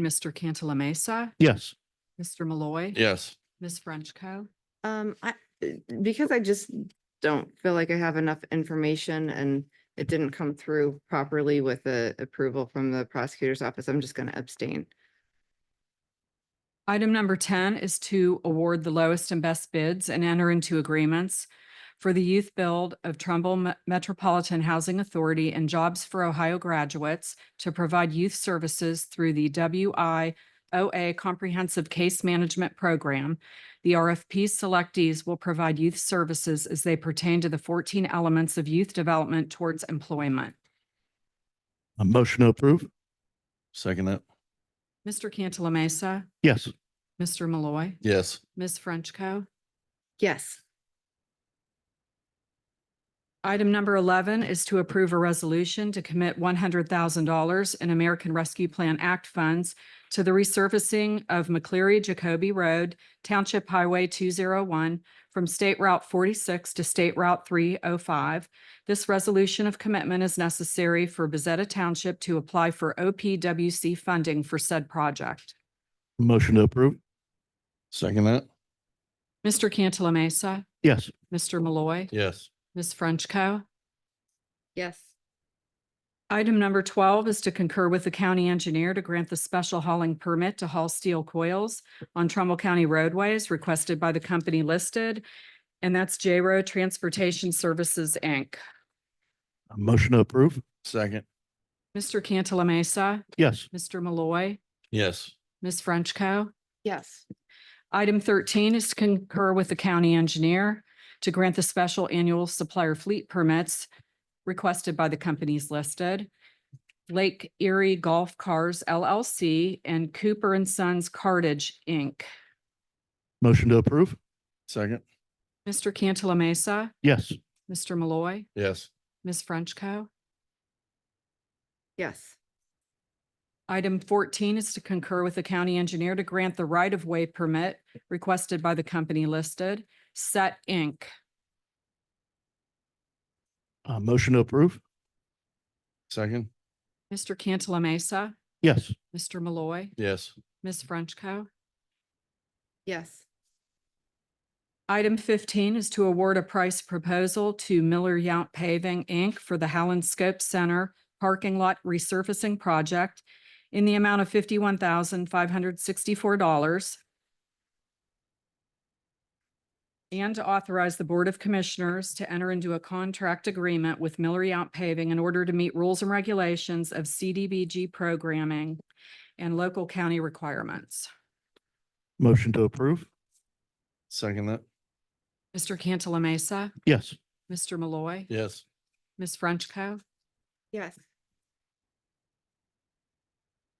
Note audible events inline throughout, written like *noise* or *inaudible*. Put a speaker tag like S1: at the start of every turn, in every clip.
S1: Mr. Cantala Mesa,
S2: Yes.
S1: Mr. Malloy.
S2: Yes.
S1: Ms. Frenchco.
S3: Um, I, because I just don't feel like I have enough information and it didn't come through properly with the approval from the prosecutor's office, I'm just gonna abstain.
S1: Item number ten is to award the lowest and best bids and enter into agreements for the youth build of Trumbull Me- Metropolitan Housing Authority and Jobs for Ohio graduates to provide youth services through the WIOA Comprehensive Case Management Program. The RFP selectees will provide youth services as they pertain to the fourteen elements of youth development towards employment.
S2: A motion to approve? Second that.
S1: Mr. Cantala Mesa,
S2: Yes.
S1: Mr. Malloy,
S2: Yes.
S1: Ms. Frenchco.
S3: Yes,
S1: Item number eleven is to approve a resolution to commit one hundred thousand dollars in American Rescue Plan Act funds to the resurfacing of McCleary Jacoby Road, Township Highway two zero one, from State Route forty-six to State Route three oh five. This resolution of commitment is necessary for Bezetta Township to apply for OPWC funding for said project.
S2: Motion to approve? Second that.
S1: Mr. Cantala Mesa,
S2: Yes.
S1: Mr. Malloy,
S2: Yes.
S1: Ms. Frenchco.
S3: yes,
S1: Item number twelve is to concur with the county engineer to grant the special hauling permit to haul steel coils on Trumbull County roadways requested by the company listed, and that's J Row Transportation Services, Inc.
S2: A motion to approve? Second.
S1: Mr. Cantala Mesa,
S2: Yes.
S1: Mr. Malloy,
S2: Yes.
S1: Ms. Frenchco.
S3: yes,
S1: Item thirteen is to concur with the county engineer to grant the special annual supplier fleet permits requested by the companies listed. Lake Erie Golf Cars LLC and Cooper and Sons Cartage, Inc.
S2: Motion to approve? Second.
S1: Mr. Cantala Mesa,
S2: Yes.
S1: Mr. Malloy,
S2: Yes.
S1: Ms. Frenchco.
S3: yes,
S1: Item fourteen is to concur with the county engineer to grant the right-of-way permit requested by the company listed, Set, Inc.
S2: A motion to approve? Second.
S1: Mr. Cantala Mesa,
S2: Yes.
S1: Mr. Malloy,
S2: Yes.
S1: Ms. Frenchco.
S3: yes,
S1: Item fifteen is to award a price proposal to Miller Yount Paving, Inc. for the Howland Scope Center Parking Lot Resurfacing Project in the amount of fifty-one thousand five hundred sixty-four dollars. And to authorize the Board of Commissioners to enter into a contract agreement with Miller Yount Paving in order to meet rules and regulations of CDBG programming and local county requirements.
S2: Motion to approve? Second that.
S1: Mr. Cantala Mesa,
S2: Yes.
S1: Mr. Malloy,
S2: Yes.
S1: Ms. Frenchco.
S3: yes,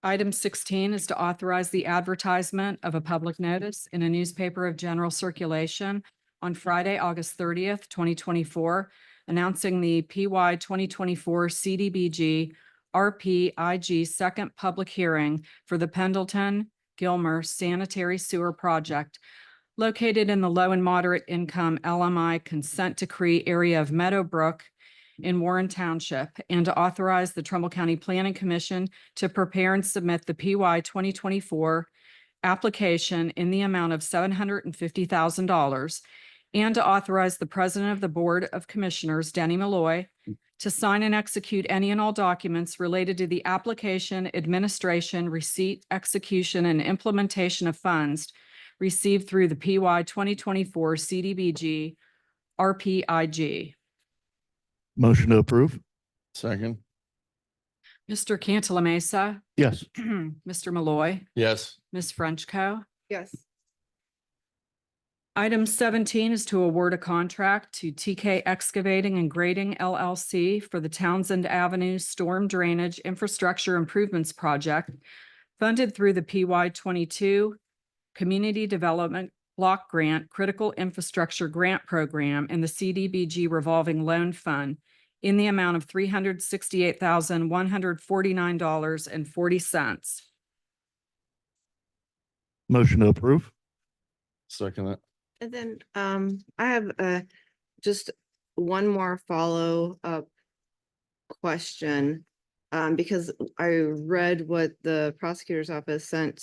S1: Item sixteen is to authorize the advertisement of a public notice in a newspaper of general circulation on Friday, August thirtieth, twenty twenty-four, announcing the PY twenty twenty-four CDBG RPIG second public hearing for the Pendleton Gilmer Sanitary Sewer Project located in the low and moderate income LMI consent decree area of Meadowbrook in Warren Township, and to authorize the Trumbull County Planning Commission to prepare and submit the PY twenty twenty-four application in the amount of seven hundred and fifty thousand dollars and to authorize the President of the Board of Commissioners, Denny Malloy, to sign and execute any and all documents related to the application, administration, receipt, execution, and implementation of funds received through the PY twenty twenty-four CDBG RPIG.
S2: Motion to approve? Second.
S1: Mr. Cantala Mesa, *clears throat*
S2: Yes.
S1: Mr. Malloy,
S2: Yes.
S1: Ms. Frenchco.
S3: yes,
S1: Item seventeen is to award a contract to TK Excavating and Grading LLC for the Townsend Avenue Storm Drainage Infrastructure Improvements Project funded through the PY twenty-two Community Development Block Grant Critical Infrastructure Grant Program and the CDBG Revolving Loan Fund in the amount of three hundred sixty-eight thousand, one hundred forty-nine dollars and forty cents.
S2: Motion to approve? Second that.
S3: and then, um, I have, uh, just one more follow-up question. Um, because I read what the prosecutor's office sent